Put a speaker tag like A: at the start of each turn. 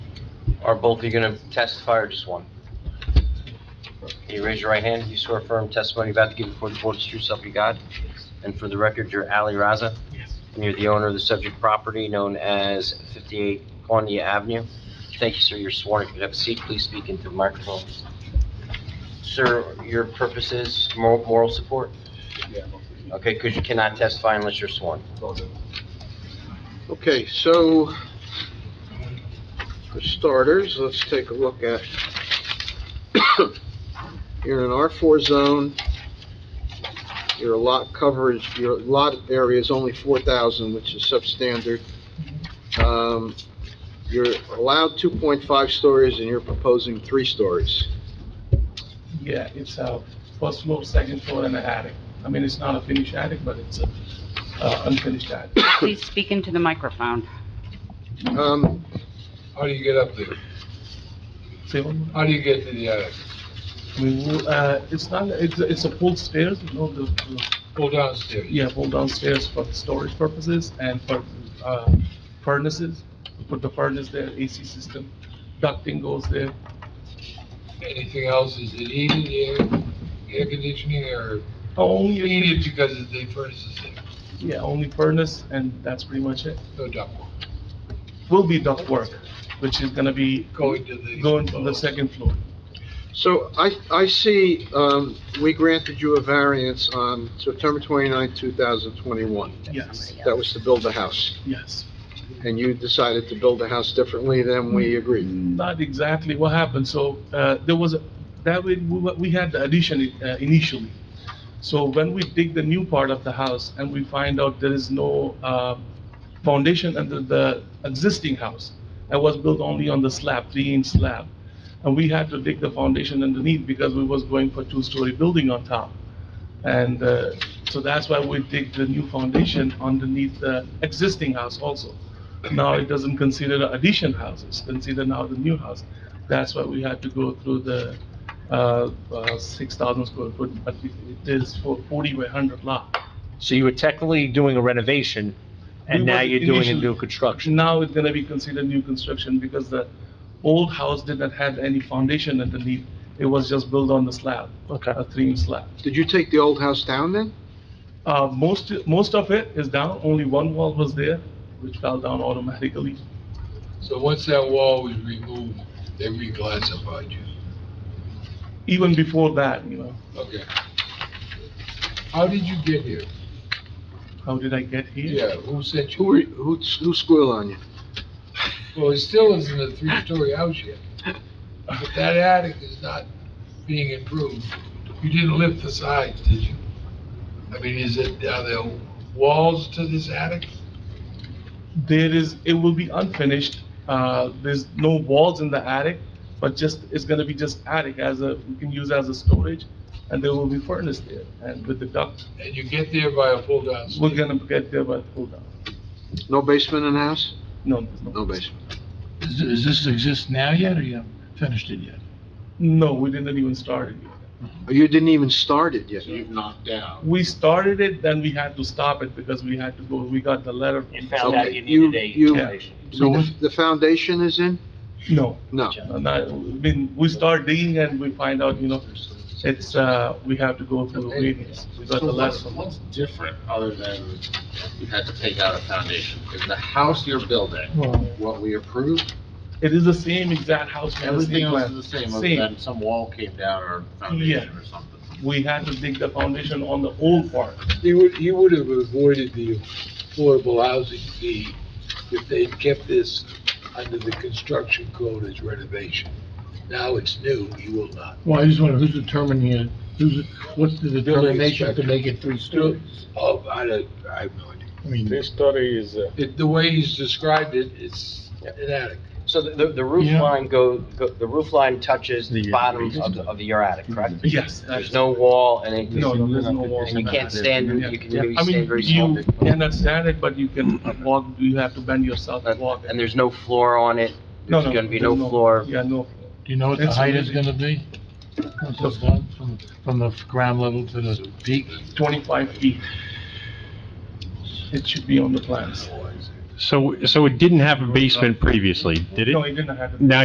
A: Are both of you going to testify or just one? Can you raise your right hand? You swear firm testimony you're about to give before the board is true self you got? And for the record, you're Ali Raza?
B: Yes.
A: And you're the owner of the subject property known as 58 Quandia Avenue? Thank you, sir. You're sworn. If you could have a seat, please speak into the microphone. Sir, your purpose is moral moral support?
B: Yeah.
A: Okay, because you cannot testify unless you're sworn.
C: Okay, so for starters, let's take a look at, you're in an R4 zone, your lot coverage, your lot area is only 4,000, which is substandard. Um, You're allowed 2.5 stories and you're proposing three stories.
B: Yeah, it's a first floor, second floor, and an attic. I mean, it's not a finished attic, but it's a uh, unfinished attic.
D: Please speak into the microphone.
C: Um,
E: How do you get up there?
B: Say one more.
E: How do you get to the attic?
B: I mean, we'll, uh, it's not, it's, a- it's a full stairs, you know, the, the-
E: Go downstairs.
B: yeah, full downstairs for the storage purposes and for, uh, furnaces. Put the furnace there, AC system, ducting goes there.
E: Anything else? Is it heated, air, air conditioning, or
B: Only,
E: heated because of the furnaces there?
B: yeah, only furnace, and that's pretty much it.
E: No ductwork.
B: Will be ductwork, which is gonna be
E: Going to the.
B: going to the second floor.
C: So I, I see, um, we granted you a variance on September 29, 2021.
B: Yes,
C: That was to build the house.
B: yes.
C: and you decided to build the house differently than we agreed.
B: Not exactly what happened, so, uh, there was, a- that way, we, wa- we had the addition uh, initially. So when we dig the new part of the house and we find out there is no, uh, foundation under the existing house, it was built only on the slab, three-inch slab, and we had to dig the foundation underneath because we was going for two-story building on top. And, uh, so that's why we dig the new foundation underneath the existing house also. Now it doesn't consider the addition houses, consider now the new house. That's why we had to go through the, uh, uh, six thousand square foot, but it it is for forty by hundred lot.
F: So you were technically doing a renovation, and
B: We
F: now
B: was
F: you're doing a
B: initially-
F: new construction.
B: Now it's gonna be considered new construction because the old house did not have any foundation underneath. It was just built on the slab,
F: Okay.
B: a three-inch slab.
C: Did you take the old house down then?
B: Uh, most, most of it is down, only one wall was there, which fell down automatically.
E: So once that wall was removed, they reclassified you.
B: Even before that, you know,
E: Okay. How did you get here?
B: how did I get here?
E: Yeah, who sent
C: Who, were-
E: you?
C: who, who squealed on you?
E: Well, it still isn't a three-story house yet. But that attic is not being improved. You didn't lift the sides, did you? I mean, is it, are there walls to this attic?
B: There is, it will be unfinished. Uh, there's no walls in the attic, but just, it's gonna be just attic as a, we can use as a storage, and there will be furnace there, and with the duct,
E: And you get there by a full down
B: we're
E: stairs.
B: gonna get there by the cool down.
C: No basement in the house?
B: No, there's
C: No
B: no.
C: basement.
G: Does does this exist now yet, or you haven't finished it yet?
B: No, we didn't even start it yet.
C: Oh, You didn't even start it yet.
G: knocked out.
B: We started it, then we had to stop it because we had to go, we got the letter. from-
C: found out you needed a
B: foundation.
C: So the- the foundation is in?
B: No,
C: No.
B: not, I mean, we start digging and we find out, you know, it's, uh, we have to go through the readings. We got the
H: So
B: letter
H: what's,
B: from.
H: what's different other than you had to take out a foundation? Is the house you're building, what we approved,
B: It is the same exact house. with the same
H: everything else
B: plan.
H: is the same, other than some wall came down or foundation or something?
B: We had to dig the foundation on the old part.
E: You would, you would have avoided the affordable housing fee if they'd kept this under the construction code as renovation. Now it's new, you will not.
G: Well, I just wonder who's determining it, who's, what's the
E: Building
G: determination to
E: inspector.
G: make it three stories?
E: Oh, I don't, I have no idea.
G: I mean,
I: This story is, uh,
E: It, the way he's described it, it's an attic.
A: So the- the, the roof
G: Yeah.
A: line go, go- the roof line touches the
G: The, uh,
A: bottom of, the- of the your attic, correct?
B: Yes.
A: There's no wall and it,
B: No, no, there's no wall.
A: and you can't stand, you can maybe
B: I
A: stand
B: mean,
A: very small.
B: you cannot stand it, but you can walk, you have to bend yourself and walk.
A: And there's no floor on it,
B: No,
A: there's
B: no,
A: gonna be
B: there's
A: no floor.
B: Yeah, no. floor.
G: do you know what the
B: It's
G: height is
B: really-
G: gonna be? Once it's done, from, from the ground level to the peak?
B: 25 feet. It should be on the plans.
I: so, so it didn't have a basement previously, did it?
B: No, it didn't happen.
I: Now